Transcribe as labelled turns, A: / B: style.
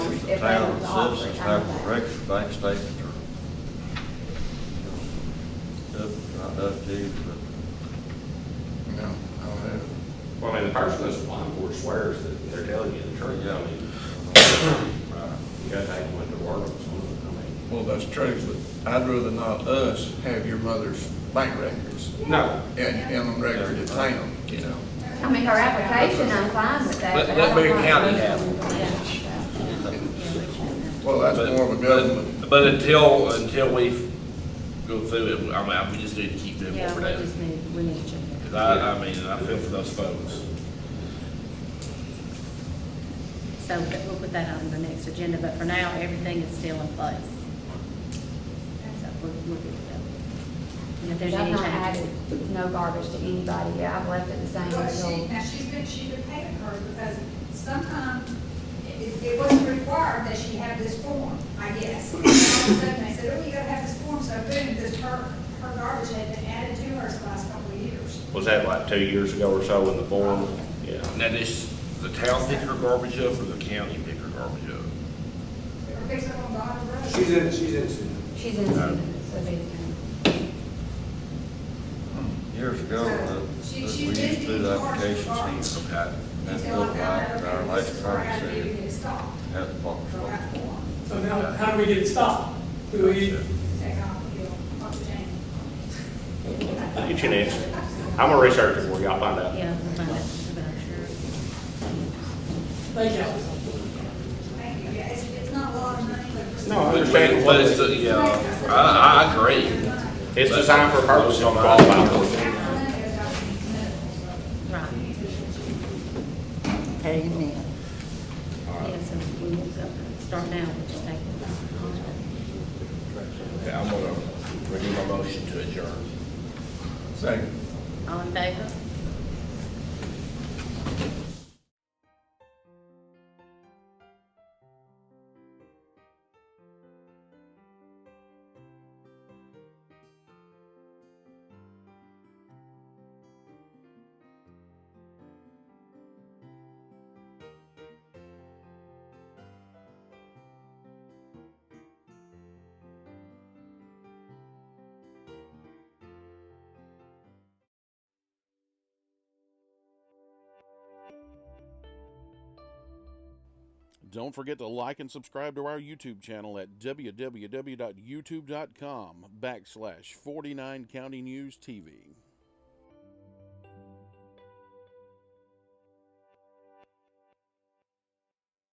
A: town
B: available to offer
A: citizens
B: retirement
A: have
B: plan.
A: record bank statements or up, not up to, you,
C: No, I don't have it.
D: Well, I mean, the person that's applying for it swears that they're telling you the
A: but,
D: truth.
A: yeah,
D: I mean, you gotta take them into work, so, I
C: Well, that's true, but I'd rather not us have your mother's bank records
D: mean, no,
C: and, and the record at town, you know.
B: I mean, her application, I'm fine with that.
E: Let-
B: but I
E: let
B: don't
E: Bear
B: want-
E: County have
C: Well, that's more of a government.
E: But- But until, until we go through it, I mean, I- we just need to keep them
F: Yeah,
E: over
F: we
E: there.
F: just need, we need to check that.
E: 'Cause I, I mean, I feel for those folks.
F: So that- we'll put that on the next agenda, but for now, everything is still in place. So we're, we're good to go. And if there's
B: I've
F: any
B: not
F: changes.
B: added no garbage to anybody yet, I've left it the same
G: But
B: as
G: she,
B: old.
G: now she's been, she's been paying her because sometimes it, it wasn't required that she have this form, I guess. And all of a sudden they said, oh, you gotta have this form, so boom, this, her, her garbage had been added to hers the last couple of years.
D: was that like two years ago or so in the form? Yeah.
E: Now, this, the town pick her garbage up or the county pick her garbage up?
G: Her picks up on Dodge Road.
H: She's in, she's in, Susan.
B: She's in, so it'd be the county.
A: years ago, that that we
G: She-
A: used
G: she's
A: to do the
G: busy.
A: applications here.
E: Okay.
A: That's
G: Until I
A: built
G: found
A: by
G: out, okay,
A: our
G: this
A: last
G: is where I had to
A: current
G: be to
A: city,
G: get it stopped.
A: had the box.
G: So I got the form,
H: So now, how do we get it stopped? Do we,
G: take off, you know, talk to Jane.
D: Get you an answer. I'm gonna research it for y'all, find out.
F: Yeah, we'll find out, but I'm sure.
H: thank y'all.
G: Thank you, yeah, it's, it's not a lot of money, but. for
D: No, I
G: some-
D: understand.
E: But it's, the- yeah, I, I agree.
D: It's designed for purpose, you don't qualify for it.
G: None of those documents, none of those.
F: Right.
I: Amen.
F: Yeah, so we will go, start now, we'll just take
E: Okay, I'm gonna renew my motion to adjourn.
C: Second.
F: All in favor?
J: Don't forget to like and subscribe to our YouTube channel at www.youtube.com backslash 49 County News TV.